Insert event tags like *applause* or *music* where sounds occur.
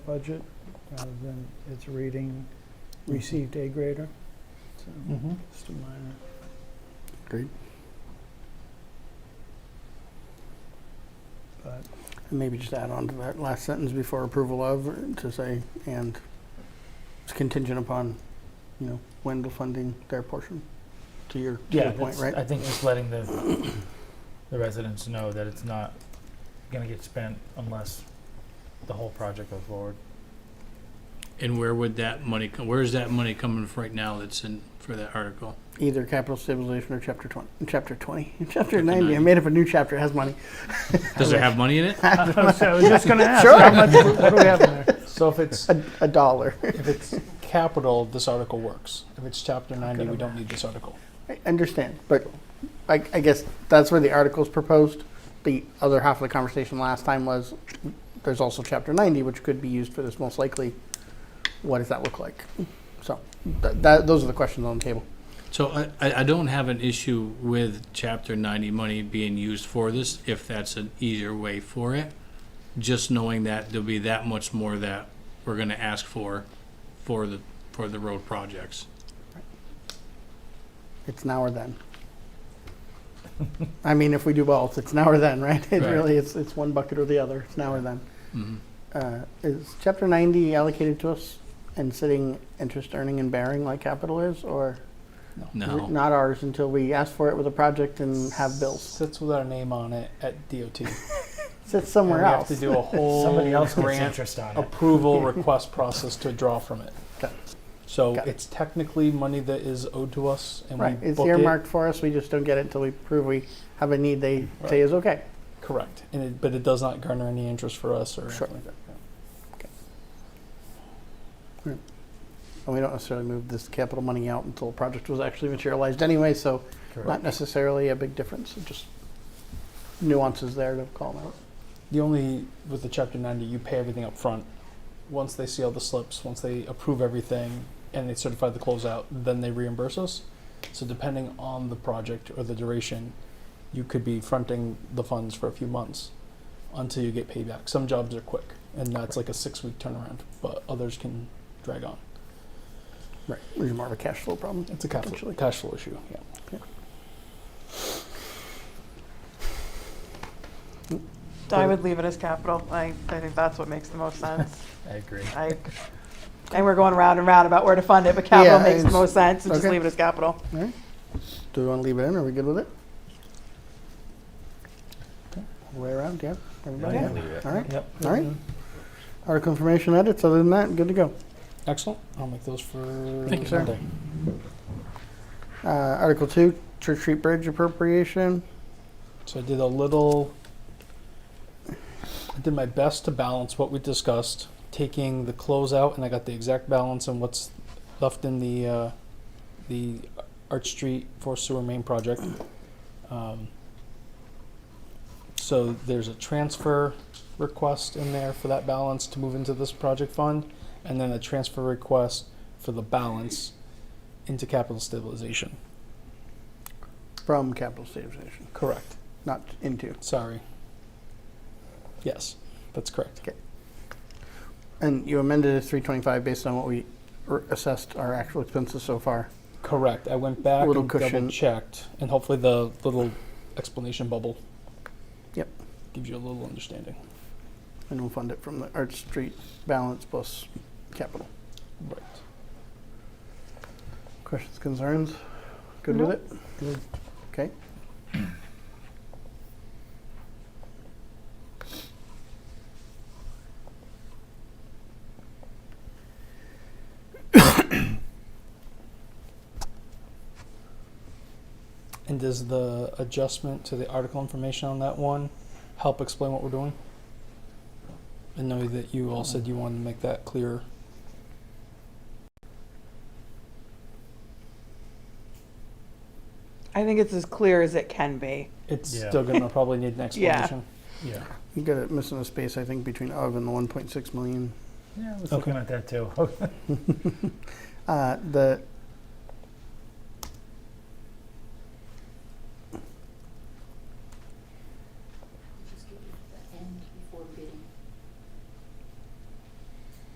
budget rather than its reading received A grader. So Mm-hmm. Mhm. just a minor. Great. But And maybe just add on to that last sentence before approval of, to say, and it's contingent upon, you know, Wendell funding their portion, to your, to Yeah, your point, that's- I right? think just letting the, the residents know that it's not gonna get spent unless the whole project goes *laughs* forward. And where would that money come, where is that money coming from right now that's in, for that article? Either capital stabilization or chapter twenty, chapter twenty, *laughs* chapter 90. ninety, I made up a new chapter, it has money. *laughs* Does it have money in it? So *laughs* I was just gonna ask, Sure. *laughs* how much, what do we have in there? So if it's A, a dollar. if it's capital, this article works. If it's chapter ninety, we don't need this article. I understand, but I, I guess that's where the article's proposed. The other half of the conversation last time was, there's also chapter ninety, which could be used for this most likely. What does that look like? So, tha that, those are the questions on the table. So I, I I don't have an issue with chapter ninety money being used for this, if that's an easier way for it. Just knowing that there'll be that much more that we're gonna ask for, for the, for the road projects. It's now or then. I mean, if we do both, it's now or then, right? It Right. really, it's, it's one bucket or the other, it's now or then. Mhm. Uh, is chapter ninety allocated to us and sitting interest earning and bearing like capital is, or? is it No, Not ours until we ask for it with a project and have bills. Sits with our name on it at DOT. Sits *laughs* somewhere And we else. Have to *laughs* do a Somebody whole else gets grant interest on it. approval request process to draw from it. Got it. So Got it. it's technically money that is owed to us, and Right, we it's book it. earmarked for us, we just don't get it until we prove we have a need they say is okay. Correct, and it, but it does not garner any interest for us or Sure. anything like that. Yeah. And we don't necessarily move this capital money out until a project was actually materialized anyway, so not necessarily a big difference, it just nuances there to call them out. The only with the chapter ninety, you pay everything up front. Once they see all the slips, once they approve everything, and they certify the closeout, then they reimburse us. So depending on the project or the duration, you could be fronting the funds for a few months until you get paid back. Some jobs are quick, and that's like a six-week turnaround, but others can drag on. Right, which is more of a cash flow problem. It's a cash flow, Potentially. cash flow issue. Yeah. I would leave it as capital. I, I think that's what makes *laughs* the most sense. I agree. I, and we're going round and round about where to fund it, but capital Yeah, makes the it's- most sense, so just okay. leave it as capital. Do we want to leave it in, are we good with it? Okay, all the Way around, yeah, everybody, Yeah, yeah, leave it. all right, Yep. all right. Article information edits, other than that, good to go. Excellent. I'll make those for Thank you, sir. Monday. Uh, Article two, Church Street Bridge appropriation, So I did a little. I did my best to balance what we discussed, taking the closeout, and I got the exact balance and what's left in the uh, the Arch Street for sewer main project. Um, so there's a transfer request in there for that balance to move into this project fund, and then a transfer request for the balance into capital stabilization. from capital stabilization, Correct. not into. Sorry. Yes, that's correct. And you amended it to 325 based on what we r- assessed our actual expenses so far. Correct. I went back Little and cushion. double checked, and hopefully the little explanation bubble. Yep. Gives you a little understanding. And we'll fund it from the Arch Street balance plus capital. Right. Questions, concerns? Good with it? Good. Okay. And does the adjustment to the article information on that one help explain what we're doing? I know that you all said you wanted to make that clearer. I think it's as clear as it can be. It's Yeah. still gonna probably need *laughs* an Yeah. explanation. Yeah. You got it missing a space, I think, between of and the 1.6 million. Yeah, I was looking at that too. Uh, The